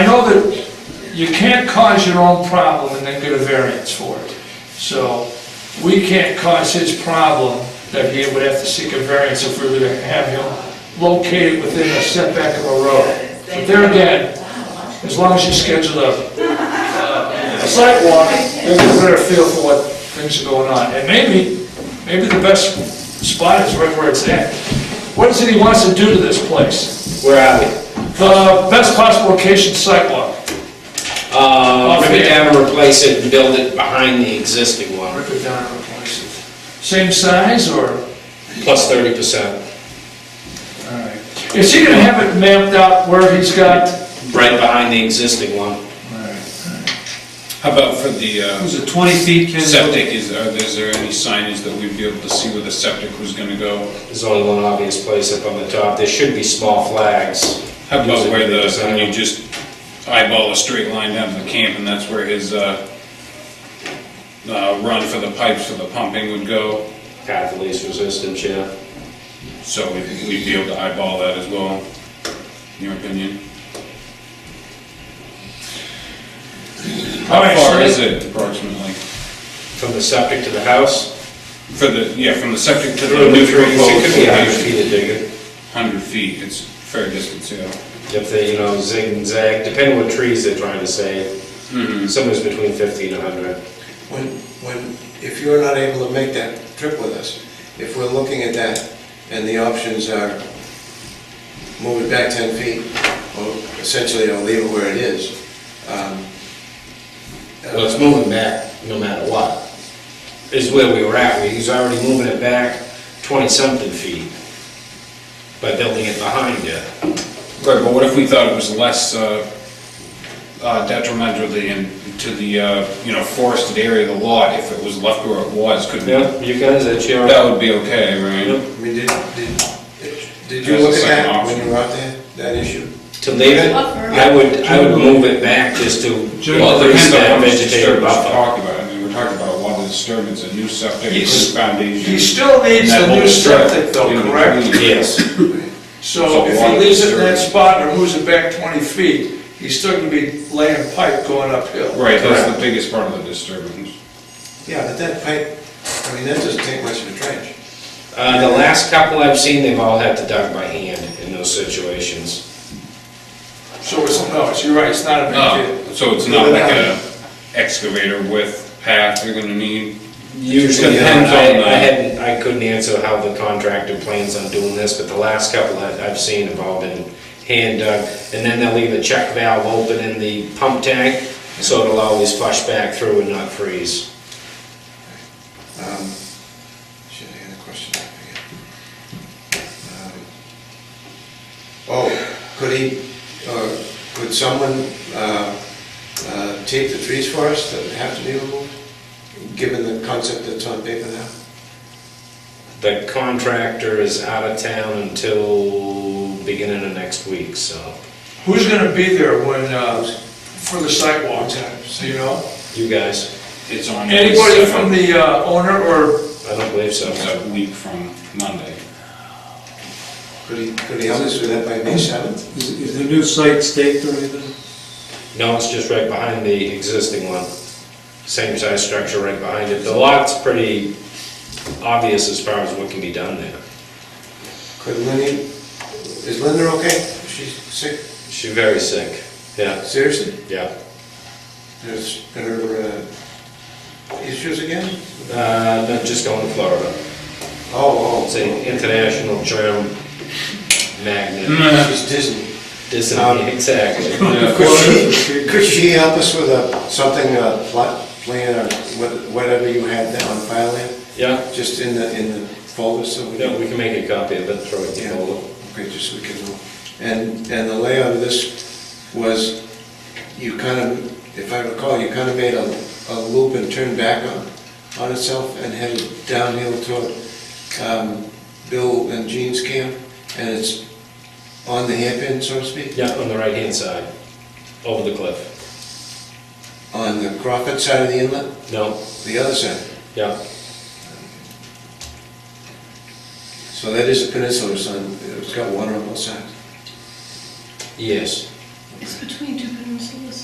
you can't cause your own problem and then get a variance for it. So we can't cause his problem that he would have to seek a variance if we were to have him located within a setback of a road. But there again, as long as you schedule a a sidewalk, you'll get a better feel for what things are going on. And maybe, maybe the best spot is right where it's at. What is it he wants to do to this place? Where are we? The best possible location sidewalk. Uh, rip it down and replace it and build it behind the existing one, Rip it down and replace it. Same size or? plus thirty percent, Is he gonna have it mapped out where he's got? right behind the existing one. How about for the uh, Was it 20 feet, Ken? septic, is, are- is there any signage that we'd be able to see where the septic was gonna go? There's only one obvious place up on the top, there should be small flags. How about where the, when There's a- you just eyeball a straight line down to the camp, and that's where his uh, uh, run for the pipes for the pumping would go? Path of least resistance, yeah. So we'd we'd be able to eyeball that as well, in your opinion? How All right, so far that- is it approximately? From the septic to the house? For the, yeah, from the septic to the It'll be new three proposed feet, yeah, hundred location? feet of digging. Hundred feet, it's fair distance, yeah. If they, you know, zig and zag, depending what trees they're trying to save, Mm-hmm. somewhere's between fifty and hundred. When, when, if you're not able to make that trip with us, if we're looking at that and the options are move it back 10 feet, or essentially, or leave it where it is, um, uh, Well, it's moving back no matter what, is where we were at. He's already moving it back twenty-something feet by building it behind it. Right, but what if we thought it was less uh, uh, detrimental to the, to the, uh, you know, forested area of the lot if it was left where it was? Could we, Yeah, you guys, that's your, that would be okay, right? I mean, did, did, did you look at that when you were out there, that issue? to leave it, I would, I would move it back just to Well, it increase depends on that how much vegetative disturbance we're buffer. talking about. I mean, we're talking about a lot of disturbance, a new septic, new He's- foundation. He still needs and that the whole new strip, septic though, you know, correct? Yes, So if he leaves it in that spot or moves it back 20 feet, he's still gonna be laying pipe going uphill. Right, that's the biggest part of the disturbance. Yeah, but that pipe, I mean, that doesn't take much of a trench. uh, the last couple I've seen, they've all had to dug by hand in those situations. So it's, no, it's- you're right, it's not a big deal. No, Ah, so it's not like a excavator with path you're gonna need? Usually, I, Depends on the- I hadn't, I couldn't answer how the contractor plans on doing this, but the last couple that I've seen have all been hand dug. And then they'll leave a check valve open in the pump tank, so it'll always flush back through and not freeze. Um, Shit, I had a question, I forget. Um, Oh, could he, uh, could someone uh, uh, take the trees for us that have to be removed? Given the concept that's on paper now? The contractor is out of town until beginning of next week, so Who's gonna be there when, uh, for the sidewalk time, so you know? you guys, It's on. the Anybody seventh. from the uh, owner or, I don't believe so. It's a week from Monday. Could he, could he help us with that by May 7th? Is is the new site staked or anything? No, it's just right behind the existing one. Same size structure right behind it. The lot's pretty obvious as far as what can be done there. Could Lenny, is Linda okay? She's sick, She's very sick. Yeah, seriously? yeah. There's been her uh, issues again? Uh, no, just going to Florida. Oh, It's an international germ magnet. oh, she's dizzy. Dis- Um, Exactly. Could she, could she help us with a, something, a plot plan or what- whatever you had there on file there? Yeah, Just in the, in the folder so we no, can, we can make a copy of it, throw it in Yeah. the folder. okay, just so we can know. And, and the layout of this was, you kind of, if I recall, you kind of made a, a loop and turned back on, on itself and headed downhill toward, um, Bill and Jean's camp, and it's on the hairpin, so to speak, Yeah, on the right-hand side, over the cliff. on the Crawford side of the inlet, No, the other side. yeah. So that is a peninsula, son, it's got water on both sides. Yes. It's between two